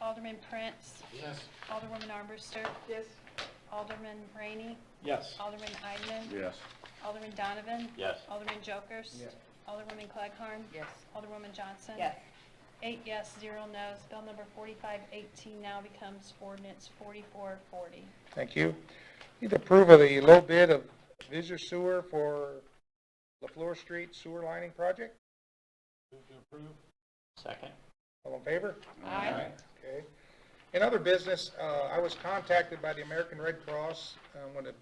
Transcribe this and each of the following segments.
Alderman Prince, Yes. Alderwoman Armbruster, Yes. Alderman Rainey, Yes. Alderman Eidman, Yes. Alderman Donovan, Yes. Alderman Jokers, Yes. Alderwoman Clegg-Harn, Yes. Alderwoman Johnson. Yes. Eight yes, zero no's. Bill number 4518 now becomes ordinance 4440. Thank you. Need to approve of the low bid of Visor Sewer for LaFleur Street Sewer Lining Project. Second? All in favor? Aye. Okay. In other business, uh, I was contacted by the American Red Cross, uh, I want to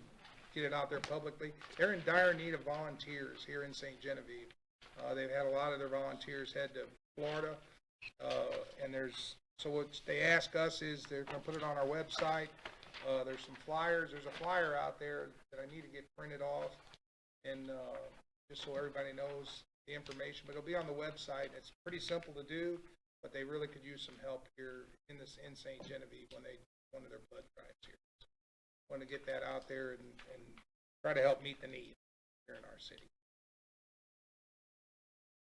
get it out there publicly. They're in dire need of volunteers here in St. Genevieve. Uh, They've had a lot of their volunteers head to Florida, uh, and there's, so what they ask us is, they're going to put it on our website. Uh, There's some flyers, there's a flyer out there that I need to get printed off, and uh, just so everybody knows the information, but it'll be on the website. It's pretty simple to do but they really could use some help here in this, in St. Genevieve when they, one of their blood drives here. Want to get that out there and, and try to help meet the need here in our city.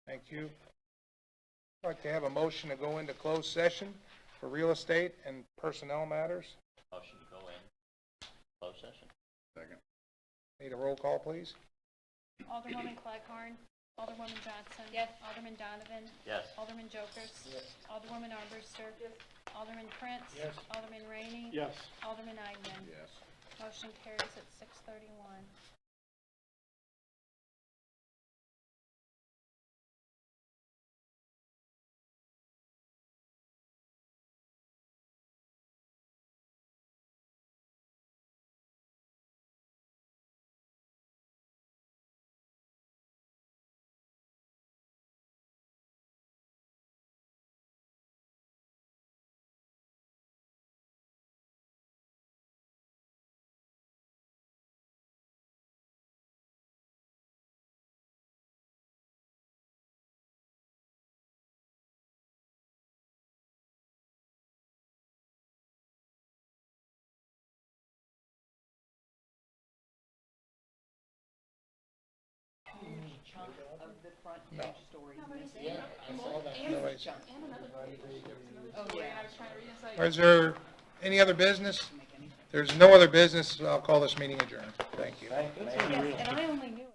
Thank you. I'd like to have a motion to go into closed session for real estate and personnel matters. Motion to go in closed session? Second. Need a roll call, please? Alderwoman Clegg-Harn, Alderwoman Johnson. Yes. Alderman Donovan, Yes. Alderman Jokers. Alderwoman Armbruster. Alderman Prince. Yes. Alderman Rainey. Yes. Alderman Eidman. Yes. Motion carries at 6:31. Huge chunk of the front page story. missing. Nobody's- Oh, yeah. Is there any other business? There's no other business, I'll call this meeting adjourned. Thank you. Yes, and I only knew